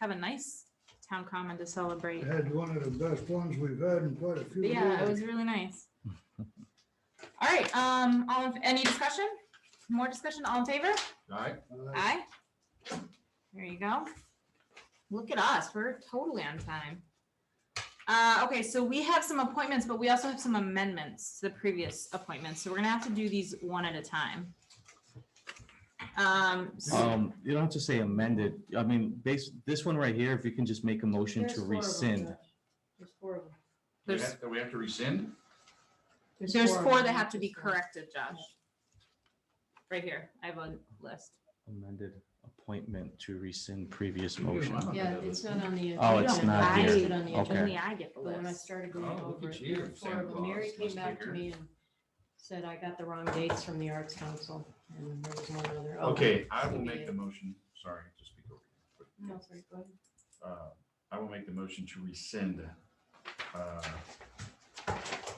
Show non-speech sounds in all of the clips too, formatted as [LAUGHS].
have a nice town common to celebrate. Had one of the best ones we've had in quite a few But yeah, it years. was really nice. All right, um, all of, any discussion? More discussion, all in favor? All right, Uh, Aye. There you go. Look at us, we're totally on time. Uh, okay, so we have some appointments, but we also have some amendments to the previous appointments, so we're gonna have to do these one at a time. Um, so- Um, you don't have to say amended. I mean, base, this one right here, if you can just make a motion There's to four of them, rescind. Josh. There's four of them. we there's, have, we have to rescind? there's of four them. that have to be corrected, Josh. Right here, I have a list. Amended appointment to rescind previous You do, motion. I'm not Yeah, gonna do it's it. not on the. Oh, agenda. it's You don't not have to here. list it on the Okay. agenda, Only I get the But when I list. started going Oh, look over at it, you, there were four Santa of them. Claus, Mary came must be back to here. me and said I got the wrong dates from the Arts Council and there was one other. Oh, Okay, I so will be make it. the motion, sorry, to speak over you. No, sorry, go ahead. but, uh, I will make the motion to rescind uh,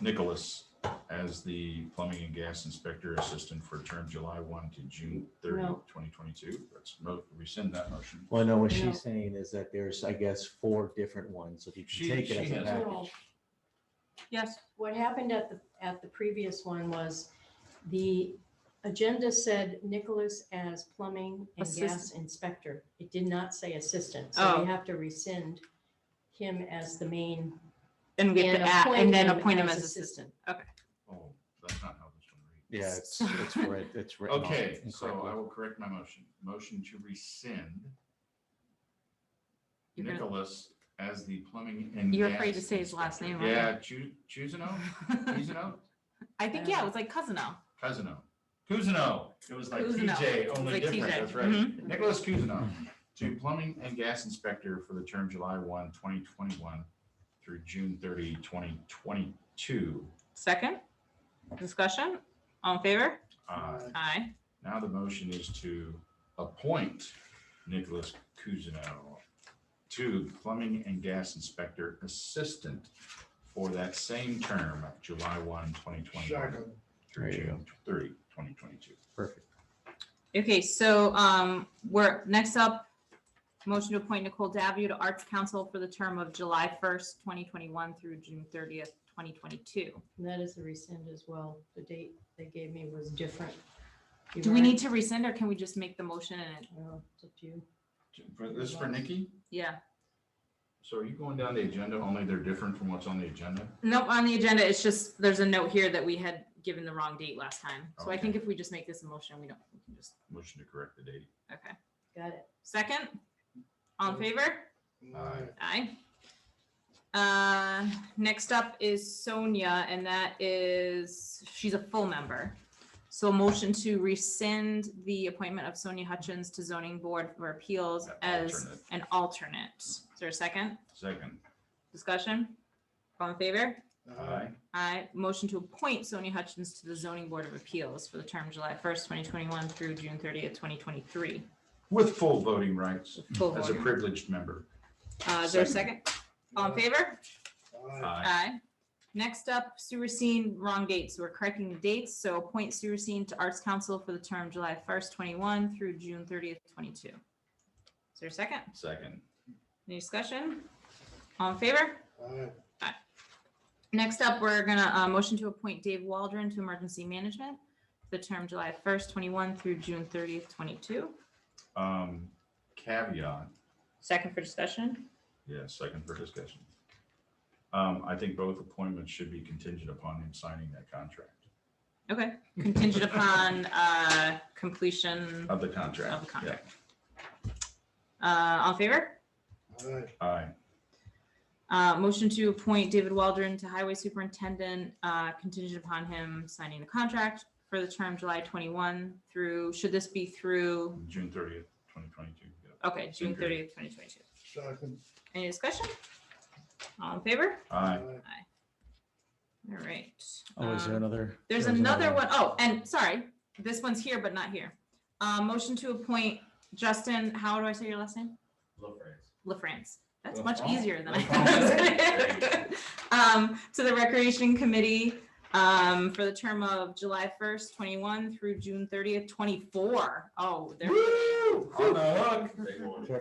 Nicholas as the plumbing and gas inspector assistant for term July 1 to June 30, No. 2022. Let's mo- rescind that motion. Well, no, what No. she's saying is that there's, I guess, four different ones. If you She- can take it she as a has- package. Yes. What happened at the, at the previous one was the agenda said Nicholas as plumbing and gas Assistant. inspector. It did not say assistant, so Oh. we have to rescind him as the main. And we have to add, and then appoint him as assistant. Oh, that's not how this one reads. Yeah, it's, it's right, it's written. off Okay, so incorrectly. I will correct my motion. Motion to rescind You're gonna- Nicholas as the plumbing and. You're gas afraid to say his last inspector. name, aren't Yeah, Chu, Chuzano, Chuzano, I think, yeah, it was like Cousino. Cuzino, Cuzino. It was like Cousineau. TJ, It's only like different, TJ. that's right. Mhm. Nicholas Cuzino to plumbing and gas inspector for the term July 1, 2021 through June 30, 2022. Second, discussion, all in favor? Uh, Aye. Now the motion is to appoint Nicholas Cusino to Plumbing and Gas Inspector Assistant for that same term, July 1, 2021 Second, There through you June 30, 2022. Perfect. Okay, so, um, we're, next up, motion to appoint Nicole Davio to Arts Council for the term of July first, twenty twenty-one through June thirtieth, twenty twenty-two. And that is a rescind as well. The date they gave me was different. You Do we weren't- need to rescind or can we just make the motion and, it- Well, it's up to you. For- This is for Nikki? yeah? So are you going down the agenda, only they're different from what's on the agenda? Nope, on the agenda, it's just, there's a note here that we had given the wrong date last time. So I Okay. think if we just make this a motion, we don't, we can just, Motion to correct the date. okay. Got it. Second, all in favor? aye. Aye. Uh, Next up is Sonia, and that is, she's a full member. So a motion to rescind the appointment of Sonia Hutchins to zoning board for appeals An as alternate. an alternate. Is there a second Second. discussion? All in favor? Aye. I motion to appoint Sonia Hutchins to the zoning board of appeals for the term July first, twenty twenty-one through June thirtieth, twenty twenty-three. With full voting rights Full as a board. privileged member. Uh, Is there a second? All in favor? Aye. Aye. Aye. Next up, Sue Racine, wrong dates. We're correcting the dates, so appoint Sue Racine to Arts Council for the term July first, twenty-one through June thirtieth, twenty-two. Is there a second? Second. Any discussion? All in favor? Aye. Next up, we're gonna, uh, motion to appoint Dave Waldron to Emergency Management for the term July first, twenty-one through June thirtieth, twenty-two. Um, Caveat, Second for discussion? Yeah, second for discussion. Um, I think both appointments should be contingent upon him signing that contract, Okay, contingent upon, uh, completion. of the contract. Of the contract. Uh, all in favor? Aye. Yeah. Aye, Uh, motion to appoint David Waldron to Highway Superintendent, uh, contingent upon him signing the contract for the term July twenty-one through, should this be through, June thirtieth, twenty twenty-two. okay, June June thirtieth. thirtieth, twenty twenty-two. Second, Any discussion? All in favor? Aye, All right. Oh, is there um, another? There's there was another one, oh, and sorry, this one's here but not here. Uh, motion to appoint Justin, how do I say your last name? LaFrance. That's much LaFrance. easier than I LaFrance. There thought. [LAUGHS] Um, to the Recreation Committee, um, for the term of July first, twenty-one through June thirtieth, twenty-four. Oh, they're On the hook.